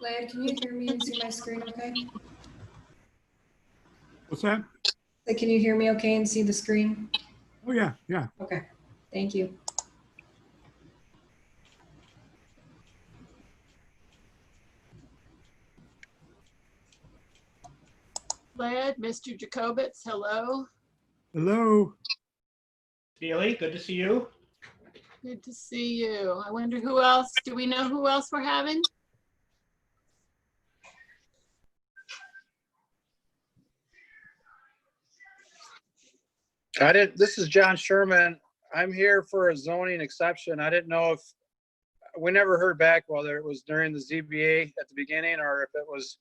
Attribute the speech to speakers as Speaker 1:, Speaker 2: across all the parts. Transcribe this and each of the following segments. Speaker 1: Laird, can you hear me and see my screen okay?
Speaker 2: What's that?
Speaker 1: Like, can you hear me okay and see the screen?
Speaker 2: Oh, yeah, yeah.
Speaker 1: Okay, thank you.
Speaker 3: Led, Mr. Jacobitz, hello.
Speaker 2: Hello?
Speaker 4: Neely, good to see you.
Speaker 3: Good to see you. I wonder who else, do we know who else we're having?
Speaker 5: I didn't, this is John Sherman. I'm here for a zoning exception. I didn't know if, we never heard back whether it was during the ZBA at the beginning or if it was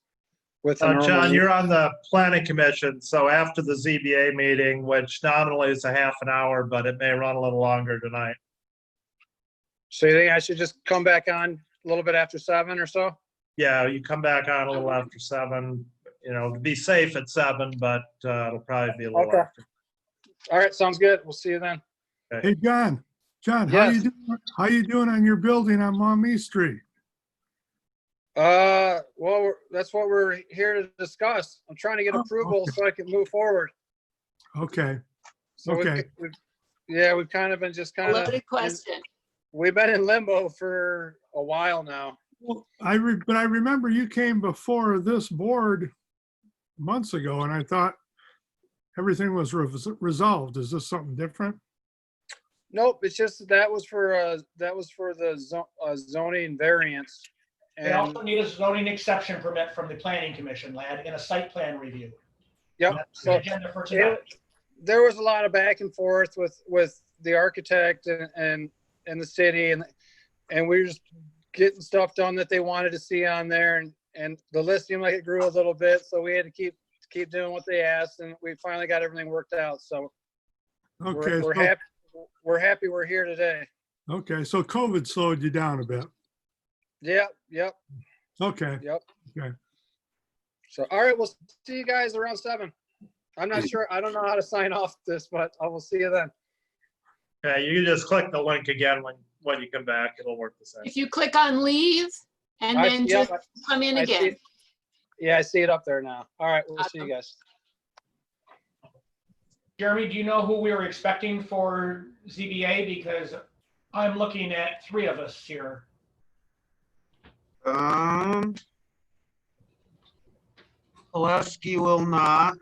Speaker 5: with. the
Speaker 6: Uh,
Speaker 5: normal-
Speaker 6: John, you're on the planning commission, so after the ZBA meeting, which nominally is a half an hour, but it may run a little longer tonight.
Speaker 5: So you think I should just come back on a little bit after seven or so?
Speaker 6: Yeah, you come back on a little after seven, you know, be safe at seven, but uh, it'll probably be a little
Speaker 5: Okay.
Speaker 6: after.
Speaker 5: All right, sounds good. We'll see you then.
Speaker 2: Hey, John. John, how you
Speaker 5: Yes.
Speaker 2: doing? How you doing on your building on Maumee Street?
Speaker 5: Uh, well, we're- that's what we're here to discuss. I'm trying to get
Speaker 2: Oh,
Speaker 5: approval
Speaker 2: okay.
Speaker 5: so I can move forward.
Speaker 2: Okay,
Speaker 5: So we've-
Speaker 2: Okay.
Speaker 5: we've- Yeah, we've kind of been just
Speaker 3: A
Speaker 5: kind of,
Speaker 3: loaded question.
Speaker 5: we've been in limbo for a while now.
Speaker 2: well, I, re- but I remember you came before this board months ago, and I thought everything was res- resolved. Is this something different?
Speaker 5: Nope, it's just that was for, uh, that was for the zo- uh, zoning variance.
Speaker 4: They
Speaker 5: And,
Speaker 4: also need a zoning exception permit from the planning commission, lad, and a site plan review.
Speaker 5: yep,
Speaker 4: That's the
Speaker 5: so
Speaker 4: agenda for tonight.
Speaker 5: there was a lot of back and forth with, with the architect and, and, and the city and, and we were just getting stuff done that they wanted to see on there and, and the list seemed like it grew a little bit, so we had to keep, keep doing what they asked and we finally got everything worked out, so
Speaker 2: Okay,
Speaker 5: we're, we're
Speaker 2: so-
Speaker 5: happy, we're happy we're here today.
Speaker 2: okay, so COVID slowed you down a bit.
Speaker 5: Yep, yep,
Speaker 2: Okay,
Speaker 5: So, all right, we'll see you guys around seven. I'm not sure, I don't know how to sign off this, but I will see you then.
Speaker 6: Yeah, you can just click the link again when, when you come back, it'll work the same.
Speaker 3: If you click on leave and
Speaker 5: I-
Speaker 3: then
Speaker 5: yep,
Speaker 3: just come in
Speaker 5: I see
Speaker 3: again.
Speaker 5: it. Yeah, I see it up there now. All right, we'll see you guys.
Speaker 4: Jeremy, do you know who we were expecting for ZBA? Because I'm looking at three of us here.
Speaker 7: Um, Valesky will not.